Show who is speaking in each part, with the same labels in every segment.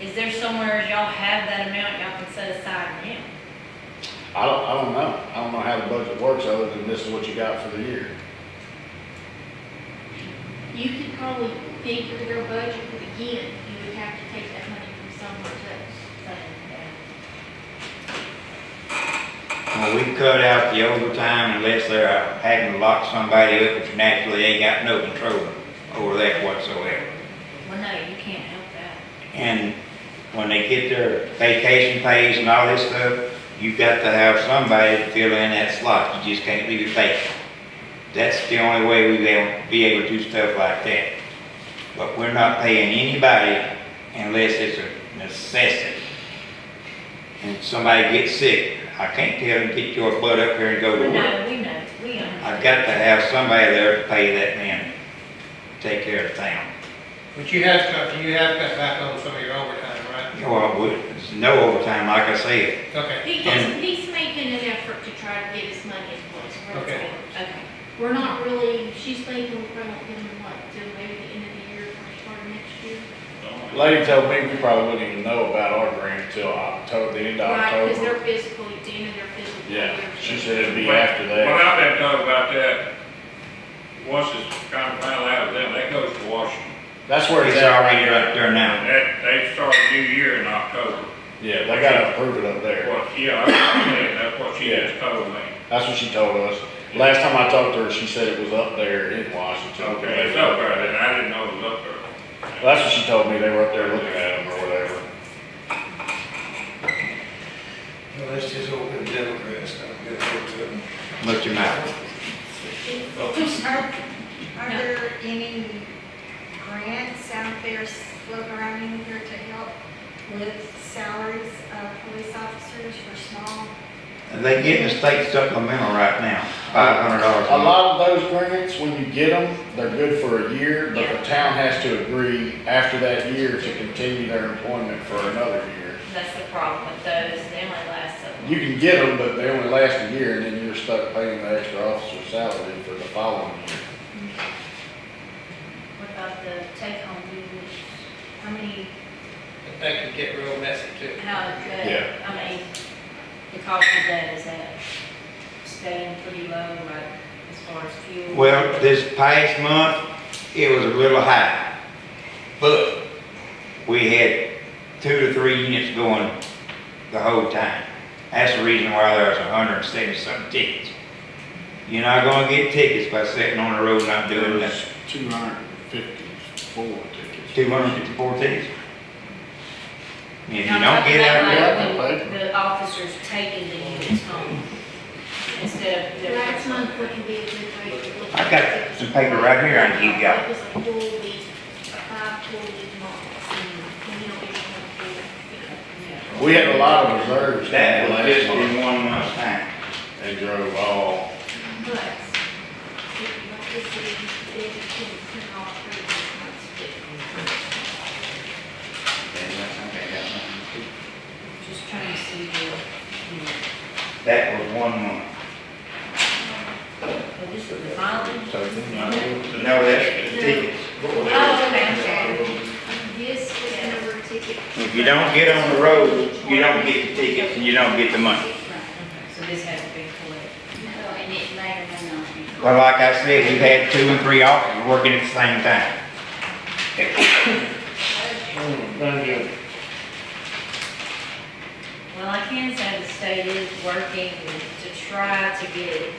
Speaker 1: Is there somewhere y'all have that amount y'all can set aside now?
Speaker 2: I don't, I don't know. I don't know how the budget works other than this is what you got for the year.
Speaker 3: You could probably figure their budget, but again, you would have to take that money from somewhere else.
Speaker 4: Well, we cut out the overtime unless they're out having to lock somebody up, which naturally ain't got no control over that whatsoever.
Speaker 1: Well, no, you can't help that.
Speaker 4: And when they get their vacation pays and all this stuff, you've got to have somebody to fill in that slot. You just can't leave it vacant. That's the only way we will be able to do stuff like that. But we're not paying anybody unless it's a necessity. And somebody gets sick, I can't tell them, get your butt up here and go
Speaker 1: We
Speaker 4: to work.
Speaker 1: know, we know, we understand.
Speaker 4: I've got to have somebody there to pay that man, take care of town.
Speaker 5: But you have cut, you have cut back on some of your overtime, right?
Speaker 4: Well, we- there's no overtime, like I said.
Speaker 5: Okay,
Speaker 3: He does, he's making an effort to try to get his money as close where it's
Speaker 5: Okay.
Speaker 3: at.
Speaker 1: Okay,
Speaker 3: We're not really, she's thinking we're gonna give him what, till maybe the end of the year, first part of next year?
Speaker 2: Lady told me we probably wouldn't even know about our grant until October, the end of
Speaker 3: Right, because
Speaker 2: October.
Speaker 3: they're physical, at the end of their physical.
Speaker 2: Yeah,
Speaker 3: year.
Speaker 2: she said it'd be after
Speaker 6: Well,
Speaker 2: that.
Speaker 6: I've been talking about that, once it's kind of final out of them, that goes to Washington.
Speaker 2: That's where it's
Speaker 4: It's
Speaker 2: at.
Speaker 4: already right there now.
Speaker 6: That, they start a new year in October.
Speaker 2: Yeah, they gotta approve it up there.
Speaker 6: What, yeah, I'm saying, that's what she just told me.
Speaker 2: That's what she told us. Last time I talked to her, she said it was up there in Washington.
Speaker 6: Okay, it's up there, then I didn't know it was up there.
Speaker 2: Well, That's what she told me. They were up there looking at them or whatever.
Speaker 7: Well, Let's just open the Democrats, I'm good with them.
Speaker 4: Much your mouth.
Speaker 8: Are, are there any grants out there floating around in here to help with salaries of police officers for small?
Speaker 4: They getting the state supplemental right now, five hundred dollars.
Speaker 2: A lot of those grants, when you get them, they're good for a year, but the town has to agree after that year to continue their employment for another year.
Speaker 1: that's the problem with those, they only last so long.
Speaker 2: You can get them, but they only last a year, and then you're stuck paying the extra officer salary for the following year.
Speaker 1: What about the take home duties? How many,
Speaker 5: but that can get real messy too.
Speaker 1: how, is
Speaker 2: Yeah.
Speaker 1: that- I mean, the cost of that, is that staying pretty low, like, as far as fuel?
Speaker 4: Well, this past month, it was a little high, but we had two to three units going the whole time. That's the reason why there's a hundred and seventy something tickets. You're not gonna get tickets by sitting on the road not doing nothing.
Speaker 2: two hundred and fifty-four tickets.
Speaker 4: Two hundred and fifty-four tickets. And If you
Speaker 1: Now,
Speaker 4: don't get out
Speaker 1: like
Speaker 4: there,
Speaker 2: there-
Speaker 1: when The officers taking the units home instead of. the-
Speaker 3: Last month wouldn't be a good way to look.
Speaker 4: I got some paper right here I can give y'all.
Speaker 3: It was a full week, five full week months, and we don't even have a full, you know.
Speaker 1: Yeah.
Speaker 2: We had a lot of reserves
Speaker 4: that
Speaker 2: that
Speaker 4: will
Speaker 2: last
Speaker 4: just
Speaker 2: month.
Speaker 4: be one month's time.
Speaker 2: They drove all,
Speaker 3: But if you want to see, they can print off for this month's
Speaker 1: Just trying to see the, you know,
Speaker 4: That was one month.
Speaker 1: well, this is the mileage.
Speaker 2: so then,
Speaker 4: No, that's the tickets.
Speaker 1: Oh, okay, okay.
Speaker 3: This was the number of tickets.
Speaker 4: If you don't get on the road, you don't get the tickets and you don't get the money.
Speaker 1: So this had to be collected.
Speaker 3: No, and it later went on.
Speaker 4: Well, like I said, we've had two and three officers working at the same time.
Speaker 1: Well, I can say the state is working to try to get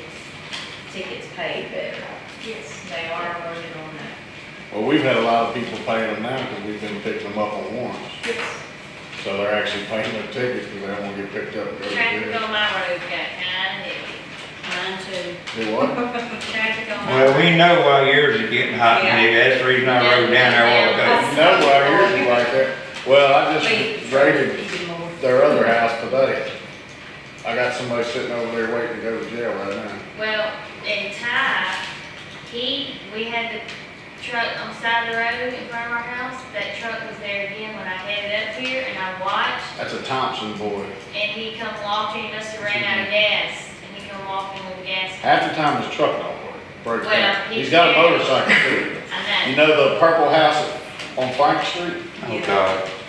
Speaker 1: tickets paid better.
Speaker 3: Yes.
Speaker 1: They are working on that.
Speaker 2: well, we've had a lot of people paying them now because we've been picking them up on warrants.
Speaker 3: Yes.
Speaker 2: So they're actually paying their tickets because they don't want to get picked up. and go to
Speaker 1: Traffic
Speaker 2: jail.
Speaker 1: on my road got kind of heavy. Mine too.
Speaker 2: Do what?
Speaker 1: Traffic on my.
Speaker 4: Well, we know why yours are getting hot, and maybe that's the reason I rode down there a while ago.
Speaker 2: No, why yours is like that? Well, I
Speaker 1: Wait.
Speaker 2: just raided
Speaker 1: Even more.
Speaker 2: their other house today. I got somebody sitting over there waiting to go to jail right now.
Speaker 9: Well, in Ty, he, we had the truck on the side of the road in front of our house. That truck was there again when I headed up here and I watched
Speaker 2: That's a Thompson boy.
Speaker 9: and he come walking, he must have ran out of gas. And he come walking with gas.
Speaker 2: Half the time his truck don't work, breaks
Speaker 9: Well,
Speaker 2: down.
Speaker 9: he-
Speaker 2: He's got a motorcycle too.
Speaker 9: I
Speaker 2: You
Speaker 9: know.
Speaker 2: know the purple house on Frank Street?
Speaker 4: Oh, God.